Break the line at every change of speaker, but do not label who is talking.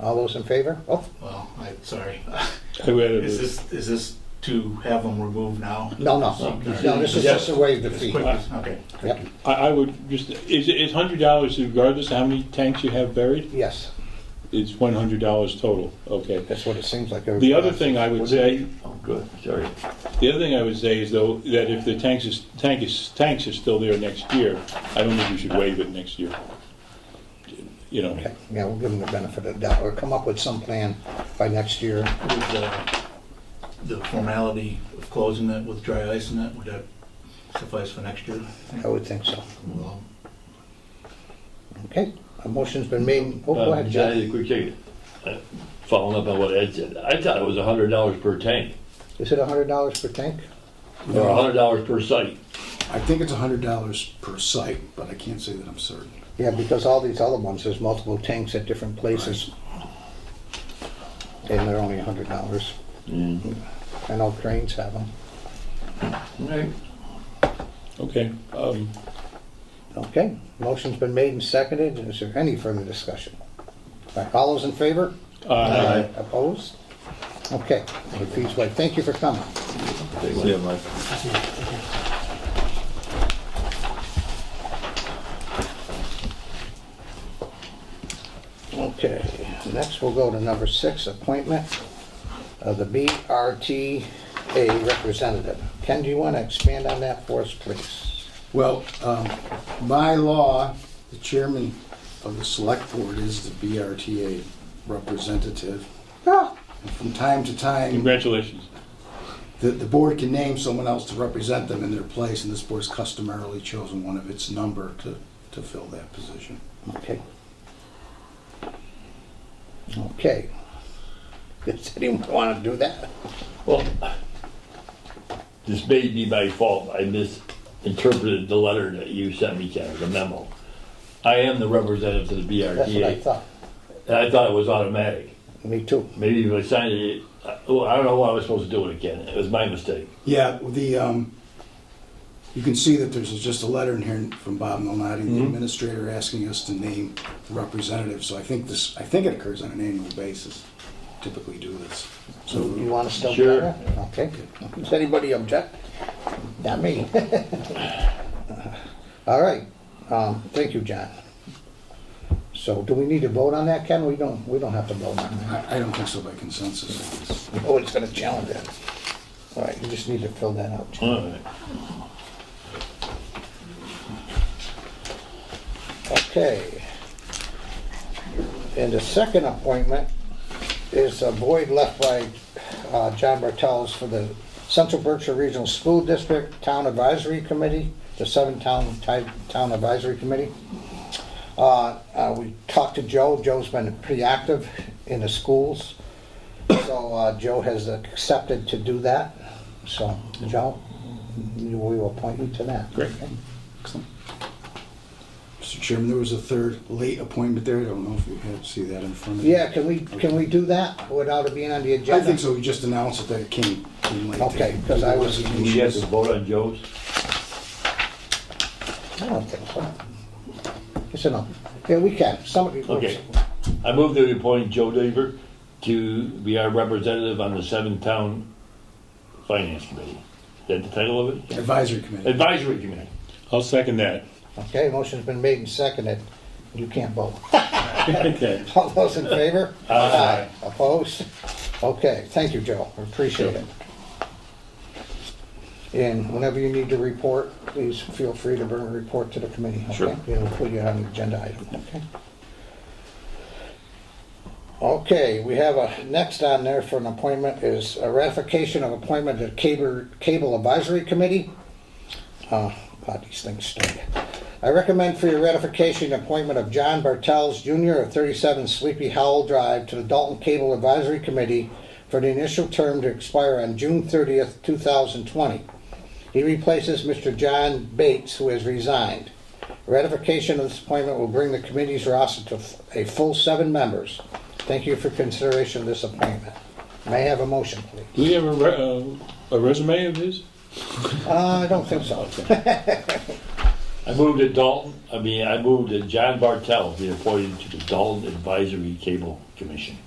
All those in favor? Oh,
Well, I, sorry.
Who added
Is
this?
this, is this to have them removed now?
no, no, no, this is just to waive the
As
fee.
quick as- Okay.
Yep,
I, I would just, is, is hundred dollars regardless of how many tanks you have buried?
yes,
It's one hundred dollars total, okay.
that's what it seems like. everybody
The other
wants.
thing I would say,
Oh, good, sorry.
the other thing I would say is though, that if the tanks is, tank is, tanks is still there next year, I don't think you should waive it next year. You know,
Okay, Yeah, we'll give them the benefit of the doubt, or come up with some plan by next year.
Would the, uh, the formality of closing that with dry ice and that, would that suffice for next year?
I would think so.
Well,
Okay, a motion's been made. Oh, go
Uh,
ahead, Joe.
Johnny, a quick second. Uh, Following up on what Ed said, I thought it was hundred dollars per tank,
Is it hundred dollars per tank?
or hundred dollars per site.
I think it's hundred dollars per site, but I can't say that I'm certain.
Yeah, because all these other ones, there's multiple tanks at different places. And they're only hundred dollars.
Mm-hmm.
I know cranes have them.
Right.
okay, um,
Okay, motion's been made and seconded. Is there any further discussion? All right, All those in favor?
uh,
Opposed? Okay, the fee's waived. Thank you for coming.
Yeah, Mike.
Okay, next we'll go to number six, appointment of the BRTA representative. Ken, do you want to expand on that for us, please?
Well, um, by law, the chairman of the select board is the BRTA representative. And From time to time,
congratulations.
the, the board can name someone else to represent them in their place, and this board's customarily chosen one of its number to, to fill that position.
Okay. Okay. Does anyone want to do that?
Well, this may be my fault. I misinterpreted the letter that you sent me, Ken, the memo. I am the representative to the BRTA.
That's what I thought.
And I thought it was automatic.
Me too.
Maybe if I signed it, I well, I don't know what I was supposed to do with it, Ken. It was my mistake.
Yeah, the, um, you can see that there's just a letter in here from Bob Malnati, the administrator, asking us to name representatives, so I think this, I think it occurs on an annual basis, typically do this. So,
You want to still do
Sure.
that? Okay. Does anybody object? Not me. All right. Um, Thank you, John. So do we need to vote on that, Ken? We don't, we don't have to vote on that.
I, I don't think so by consensus. I guess.
Oh, it's going to challenge it. All right, you just need to fill that out.
All right.
Okay. And the second appointment is a void left by uh, John Bartels for the Central Berkshire Regional School District Town Advisory Committee, the Seven Town, Ti- Town Advisory Committee. Uh, uh, We talked to Joe, Joe's been pretty active in the schools, so uh, Joe has accepted to do that. So, Joe, we will appoint you to that.
Great.
Mr. Chairman, there was a third late appointment there, I don't know if you have, see that in front of you.
Yeah, can we, can we do that without it being on the
I
agenda?
think so, we just announced it that it came, came late.
Okay, 'cause I was-
Did you have to vote on Joe's?
I don't think so. It's enough. Yeah, we can, somebody.
Okay. I move that we appoint Joe Daver to be our representative on the seven town finance committee. Is that the title of it?
Advisory committee.
Advisory committee.
I'll second that.
Okay, motion's been made and seconded. You can't vote.
Okay.
All those in favor? Aye. Opposed? Okay, thank you, Joe. I Appreciate it. And whenever you need to report, please feel free to bring a report to the committee. okay?
Sure.
We'll put you on the agenda item, okay? Okay, we have a, next on there for an appointment is a ratification of appointment to Cable Cable Advisory Committee. Uh, God, these things stink. I recommend for your ratification, the appointment of John Bartels Jr. of 37 Sleepy Howell Drive to the Dalton Cable Advisory Committee for the initial term to expire on June 30th, 2020. He replaces Mr. John Bates, who has resigned. Ratification of this appointment will bring the committee's roster to f- a full seven members. Thank you for consideration of this appointment. May I have a motion, please?
Do we have a, re- uh, a resume of his?
Uh, I don't think so.
I I moved to Dalton, I mean, I moved to John Bartel, be appointed to the Dalton Advisory Cable Commission.